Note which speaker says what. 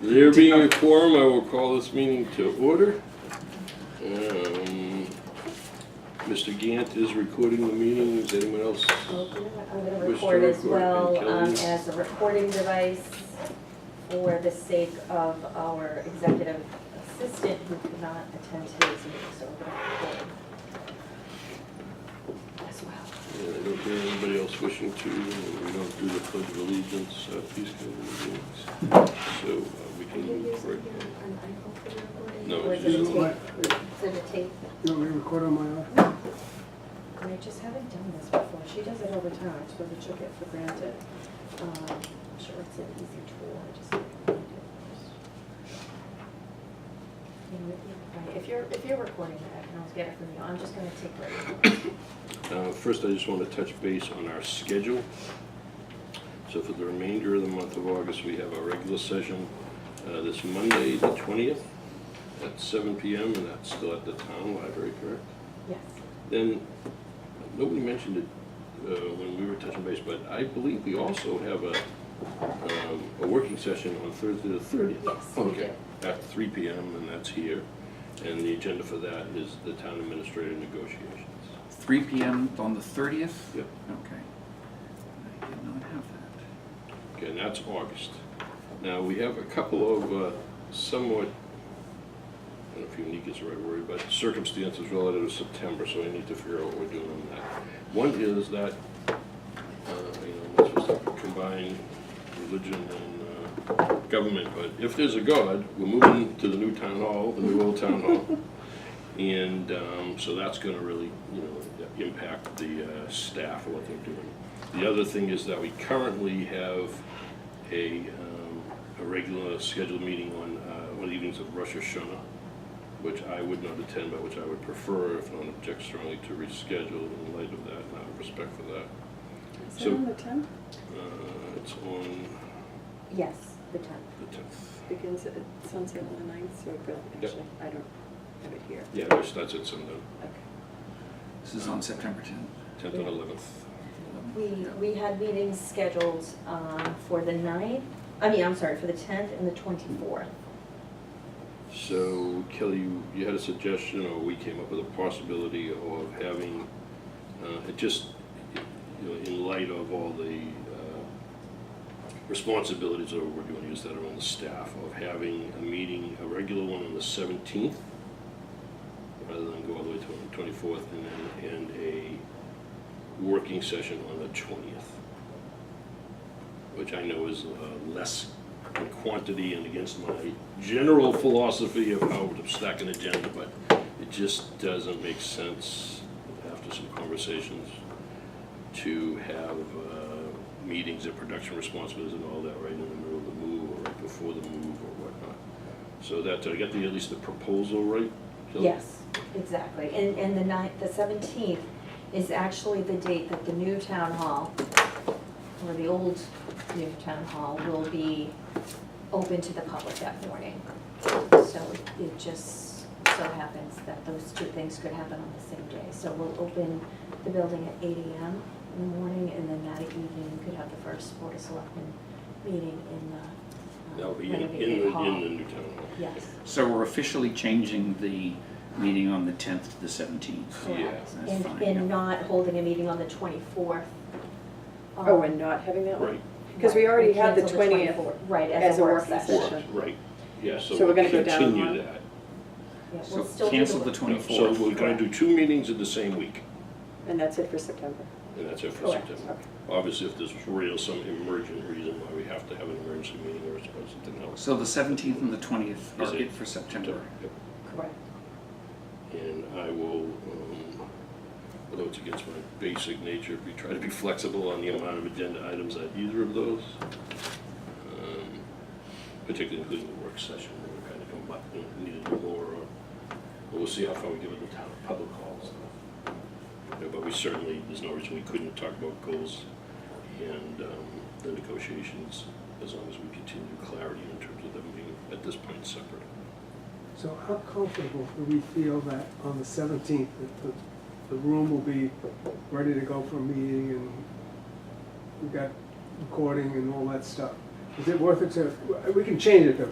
Speaker 1: There being a quorum, I will call this meeting to order. Um, Mr. Gant is recording the meeting. Is anyone else?
Speaker 2: I'm gonna
Speaker 1: Wish to
Speaker 2: record as
Speaker 1: record and
Speaker 2: well
Speaker 1: tell
Speaker 2: um,
Speaker 1: you.
Speaker 2: as a recording device for the sake of our executive assistant who could not attend today's meeting, so we're gonna record as well.
Speaker 1: Yeah, I don't hear anybody else wishing to. We don't do the pledge of allegiance. uh, Please go to the meetings. So uh, we can move right. No,
Speaker 2: Or
Speaker 1: it's
Speaker 2: is
Speaker 1: just-
Speaker 2: it a tape? Is it a tape?
Speaker 3: You want me to record on my own?
Speaker 2: And I just haven't done this before. She does it over time, I sort of took it for granted. Um, I'm sure it's an easy tool, I just. You know, if you- If you're, if you're recording it, I can always get it from you. I'm just gonna take it.
Speaker 1: Uh, First, I just want to touch base on our schedule. So for the remainder of the month of August, we have our regular session uh, this Monday, the 20th, at 7 PM, and that's still at the town library, correct?
Speaker 2: Yes.
Speaker 1: Then, nobody mentioned it uh, when we were touching base, but I believe we also have a, um, a working session on Thursday, the 30th.
Speaker 2: Yes, we
Speaker 1: Okay, at 3 PM, and that's here. And the agenda for that is the town administrator negotiations.
Speaker 4: 3 PM on the 30th?
Speaker 1: Yep.
Speaker 4: Okay. I did not have that.
Speaker 1: Okay, and that's August. Now, we have a couple of uh, somewhat, I don't know if unique is the right word, but circumstances relative to September, so we need to figure out what we're doing on that. One is that, uh, you know, let's just combine religion and uh, government, but if there's a God, we're moving to the new town hall, the new old town hall. And um, so that's going to really, you know, impact the uh, staff and what they're doing. The other thing is that we currently have a, um, a regular scheduled meeting on, uh, on the evenings of Rosh Hashanah, which I would not attend, but which I would prefer, if no one objects strongly, to reschedule in light of that, and out of respect for that.
Speaker 5: Is
Speaker 1: So-
Speaker 5: that on the tenth?
Speaker 1: Uh, It's on
Speaker 2: Yes, the tenth.
Speaker 1: the 10th.
Speaker 5: Begins at sunset on the ninth, so it really,
Speaker 1: Yep.
Speaker 5: actually, I don't have it here.
Speaker 1: Yeah, it starts at some,
Speaker 5: Okay.
Speaker 4: This is on September 10th.
Speaker 1: 10th and 11th.
Speaker 2: We, we had meetings scheduled um, for the ninth, I mean, I'm sorry, for the tenth and the twenty-fourth.
Speaker 1: So Kelly, you, you had a suggestion, or we came up with a possibility of having, uh, it just, you know, in light of all the, uh, responsibilities that we're doing, is that are on the staff, of having a meeting, a regular one on the seventeenth, rather than go all the way to the twenty-fourth, and then, and a working session on the twentieth, which I know is, uh, less in quantity and against my general philosophy of how to stack an agenda, but it just doesn't make sense after some conversations to have uh, meetings and production responsibilities and all that right in the middle of the move or right before the move or whatnot. So that, did I get the, at least the proposal right? Kelly?
Speaker 2: Yes, exactly. And, and the ninth, the seventeenth is actually the date that the new town hall, or the old new town hall, will be open to the public that morning. So it just so happens that those two things could happen on the same day. So we'll open the building at eight AM in the morning, and then that evening we could have the first Board of Selectmen meeting in the
Speaker 1: That'll
Speaker 2: uh,
Speaker 1: be in, in
Speaker 2: renovated
Speaker 1: the, in
Speaker 2: hall.
Speaker 1: the new town hall.
Speaker 2: Yes,
Speaker 4: So we're officially changing the meeting on the 10th to the 17th.
Speaker 2: correct.
Speaker 4: Yeah, that's
Speaker 2: And,
Speaker 4: fine, yeah.
Speaker 2: and not holding a meeting on the twenty-fourth.
Speaker 5: Oh, and not having that one?
Speaker 1: Right,
Speaker 5: Because we already had the 20th
Speaker 2: Right,
Speaker 5: as a working session.
Speaker 1: right, right. Yeah, so
Speaker 5: So we're
Speaker 1: we'll
Speaker 5: gonna go down one?
Speaker 1: continue that.
Speaker 2: Yeah, we'll
Speaker 4: So
Speaker 2: still do
Speaker 4: cancel the 24th.
Speaker 1: So we're gonna do two meetings in the same week,
Speaker 5: And that's it for September.
Speaker 1: and that's it for
Speaker 2: Correct.
Speaker 1: September.
Speaker 5: Okay.
Speaker 1: Obviously, if there's real, some emergent reason why we have to have an emergency meeting or something else.
Speaker 4: So the 17th and the 20th
Speaker 1: Is
Speaker 4: are
Speaker 1: it-
Speaker 4: it for September.
Speaker 2: Correct.
Speaker 1: And I will, um, although it's against my basic nature, we try to be flexible on the amount of agenda items at either of those. um, Particularly including the work session, we're kind of come back, you know, need to do more, or but we'll see how far we get with the town public calls. But we certainly, there's no reason we couldn't talk about goals and um, the negotiations, as long as we continue clarity in terms of them being, at this point, separate.
Speaker 3: So how comfortable do we feel that on the seventeenth, that the, the room will be ready to go for a meeting and we've got recording and all that stuff? Is it worth it to, we can change it though,